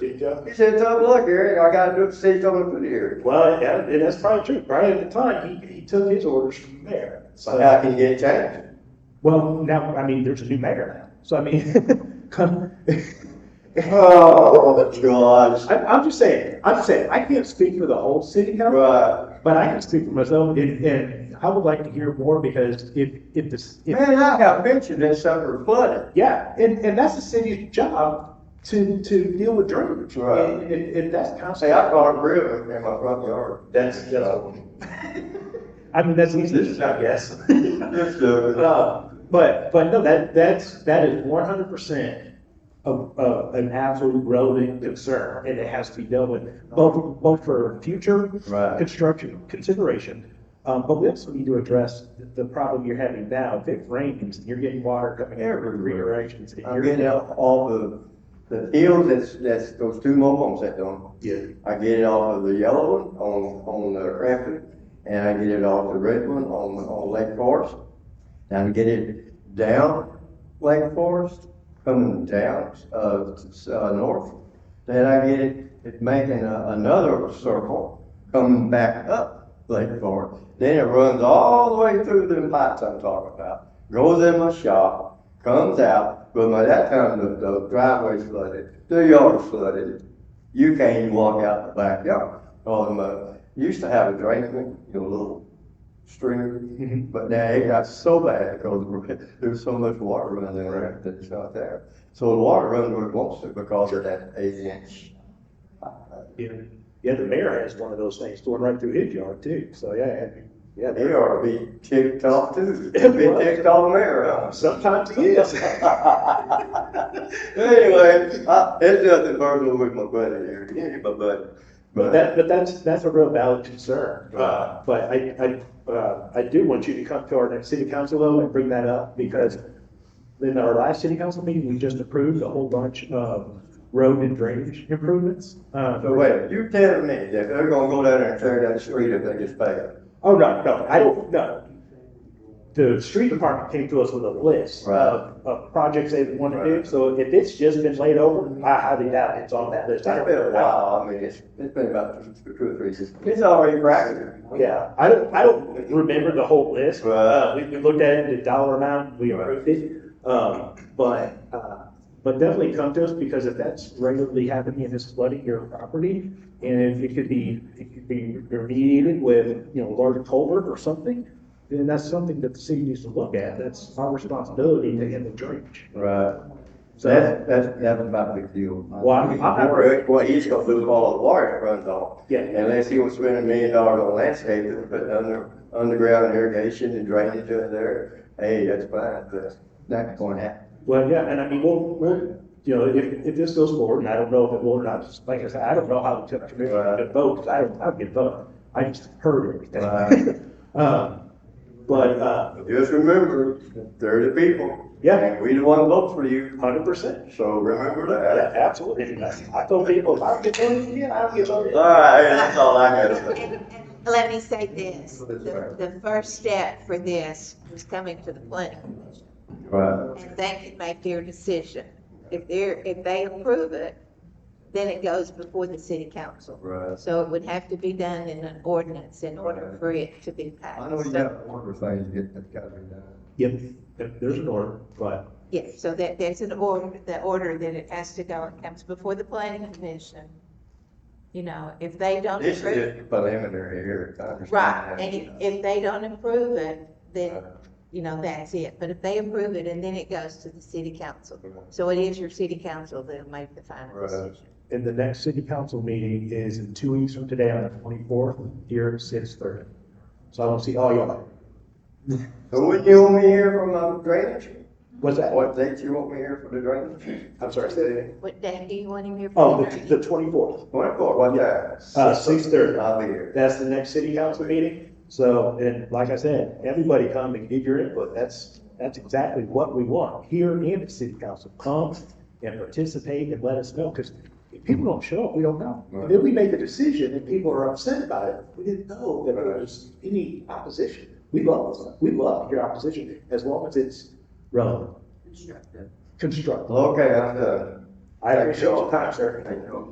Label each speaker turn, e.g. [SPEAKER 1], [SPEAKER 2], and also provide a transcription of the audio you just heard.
[SPEAKER 1] He
[SPEAKER 2] uh,
[SPEAKER 1] does.
[SPEAKER 3] He said, tough luck, Eric, I gotta do it, say coming through the area.
[SPEAKER 1] Well, yeah, and that's probably true. Right at the time, he, he took his orders from there.
[SPEAKER 3] So
[SPEAKER 1] So,
[SPEAKER 3] how can you get it changed?
[SPEAKER 2] Well, now, I mean, there's a new mayor now, so I mean, come-
[SPEAKER 3] Oh, God,
[SPEAKER 2] I'm, I'm just saying, I'm saying, I can't speak for the whole city council,
[SPEAKER 3] right.
[SPEAKER 2] but I can speak for myself, and, and I would like to hear more, because if, if this, if,
[SPEAKER 3] Man, I got pictures that sucker flooded.
[SPEAKER 2] yeah, and, and that's the city's job to, to deal with drainage.
[SPEAKER 3] Right.
[SPEAKER 2] And, and, and that's
[SPEAKER 3] Say,
[SPEAKER 2] constantly,
[SPEAKER 3] I caught a river in my front yard. That's, that's.
[SPEAKER 2] I mean, that's.
[SPEAKER 1] this is not guessing.
[SPEAKER 3] That's the,
[SPEAKER 2] Uh, But, but no, that, that's, that is one hundred percent of, of an absolute relevant concern, and it has to be dealt with, both, both for future
[SPEAKER 3] Right.
[SPEAKER 2] construction consideration, um, but we also need to address the problem you're having now, if it rains, and you're getting water coming in from three
[SPEAKER 3] Everywhere.
[SPEAKER 2] directions. and
[SPEAKER 3] I'm
[SPEAKER 2] you're-
[SPEAKER 3] getting out all the, the fields that's, that's, those two mobile homes that don't.
[SPEAKER 2] Yeah.
[SPEAKER 3] I get it off of the yellow one on, on the Rapid, and I get it off the red one on, on Lake Forest. And I get it down Lake Forest, coming down, uh, s- uh, north. Then I get it, it making a- another circle, coming back up Lake Forest. Then it runs all the way through them pipes I'm talking about, goes in my shop, comes out, but by that time, the, the driveway's flooded, the yard's flooded, you can't even walk out the backyard. All them, uh, used to have a drain, you know, little stream,
[SPEAKER 2] Mhm.
[SPEAKER 3] but now it got so bad because there's so much water running around that it's not there. So the water runs where it wants to because of that eight inch.
[SPEAKER 2] Yeah. Yeah, the mayor has one of those things going right through his yard too, so yeah, I mean, yeah.
[SPEAKER 3] They ought to be ticked off too. Be
[SPEAKER 2] It was.
[SPEAKER 3] ticked off there, huh?
[SPEAKER 2] Sometimes he is.
[SPEAKER 3] Anyway, I, it's nothing personal with my buddy here, yeah, my buddy.
[SPEAKER 2] But that, but that's, that's a real valid concern. Uh,
[SPEAKER 3] Right.
[SPEAKER 2] But I, I, uh, I do want you to come to our next city council though and bring that up because in our last city council meeting, we just approved a whole bunch of road and drainage improvements. Uh,
[SPEAKER 3] So wait, you telling me that they're gonna go down there and tear that street if they get paid?
[SPEAKER 2] Oh, no, no, I don't, no. The street department came to us with a list
[SPEAKER 3] Right.
[SPEAKER 2] of, of projects they want to do.
[SPEAKER 3] Right.
[SPEAKER 2] So if it's just been laid over, I highly doubt it's on that list. I
[SPEAKER 3] It's
[SPEAKER 2] don't-
[SPEAKER 3] been a while, I mean, it's, it's been about two, two or three years. It's already cracking.
[SPEAKER 2] Yeah, I don't, I don't remember the whole list.
[SPEAKER 3] Right.
[SPEAKER 2] Uh, we, we looked at it, the dollar amount, we approved it. Um, but, uh, but definitely come to us because if that's regularly happening and it's flooding your property, and if it could be, it could be remediated with, you know, large culvert or something, then that's something that the city needs to look at. That's our responsibility to end the drainage.
[SPEAKER 3] Right. So
[SPEAKER 2] So,
[SPEAKER 3] that, that's, that's about a big deal.
[SPEAKER 2] Well, I'm- I'm not-
[SPEAKER 3] Well, he's gonna lose all the water that runs off.
[SPEAKER 2] Yeah.
[SPEAKER 3] Unless he was spending a million dollars on landscaping, and putting under, underground irrigation and drainage in there. Hey, that's fine, but that's gonna happen.
[SPEAKER 2] well, yeah, and I mean, we'll, we'll, you know, if, if this goes forward, and I don't know if it will or not, just like I said, I don't know how the commission
[SPEAKER 3] Right.
[SPEAKER 2] could vote, 'cause I don't, I don't get a vote. I just heard everything.
[SPEAKER 3] Right.
[SPEAKER 2] Um, But, uh,
[SPEAKER 3] Just remember, they're the people.
[SPEAKER 2] Yeah.
[SPEAKER 3] And we the one vote for you,
[SPEAKER 2] hundred percent,
[SPEAKER 3] so remember
[SPEAKER 2] Yeah,
[SPEAKER 3] that.
[SPEAKER 2] absolutely. I told people, if I don't get voted in, I don't get voted
[SPEAKER 3] All
[SPEAKER 2] in.
[SPEAKER 3] right, that's all I got to say.
[SPEAKER 4] And- and Let me say this, the, the first step for this was coming to the planning commission.
[SPEAKER 3] Right,
[SPEAKER 4] And they can make their decision. If they're, if they approve it, then it goes before the city council.
[SPEAKER 3] right.
[SPEAKER 4] So it would have to be done in an ordinance in order for it to be passed.
[SPEAKER 3] I know you got order things to get, that's gotta be done.
[SPEAKER 2] Yep, yep, there's an order, but,
[SPEAKER 4] Yes, so that, there's an order, the order that it has to go, it comes before the planning commission. You know, if they don't
[SPEAKER 3] This is
[SPEAKER 4] approve.
[SPEAKER 3] just preliminary here, I understand.
[SPEAKER 4] Right,
[SPEAKER 3] that.
[SPEAKER 4] and if, if they don't approve it, then, you know, that's it. But if they approve it, and then it goes to the city council. So it is your city council that'll make the final
[SPEAKER 3] Right.
[SPEAKER 4] decision.
[SPEAKER 2] and the next city council meeting is in two weeks from today on the twenty-fourth, here at six thirty. So I don't see all y'all.
[SPEAKER 3] So wouldn't you want me here for my drainage?
[SPEAKER 2] What's that?
[SPEAKER 3] What date you want me here for the drainage?
[SPEAKER 2] I'm sorry, say that again.
[SPEAKER 4] What day do you want him here
[SPEAKER 2] Oh,
[SPEAKER 4] for?
[SPEAKER 2] the, the twenty-fourth.
[SPEAKER 3] Twenty-four, what time?
[SPEAKER 2] Uh, six thirty.
[SPEAKER 3] I'll be here.
[SPEAKER 2] That's the next city council meeting. So, and like I said, everybody come and give your input. That's, that's exactly what we want here in the city council. Come and participate and let us know, because if people don't show up, we don't know. And then we make a decision and people are upset about it. We didn't know that there was any opposition. We love, we love your opposition as long as it's relevant, constructive.
[SPEAKER 3] Okay, I'm done.
[SPEAKER 2] I appreciate your time, sir.
[SPEAKER 3] Thank you.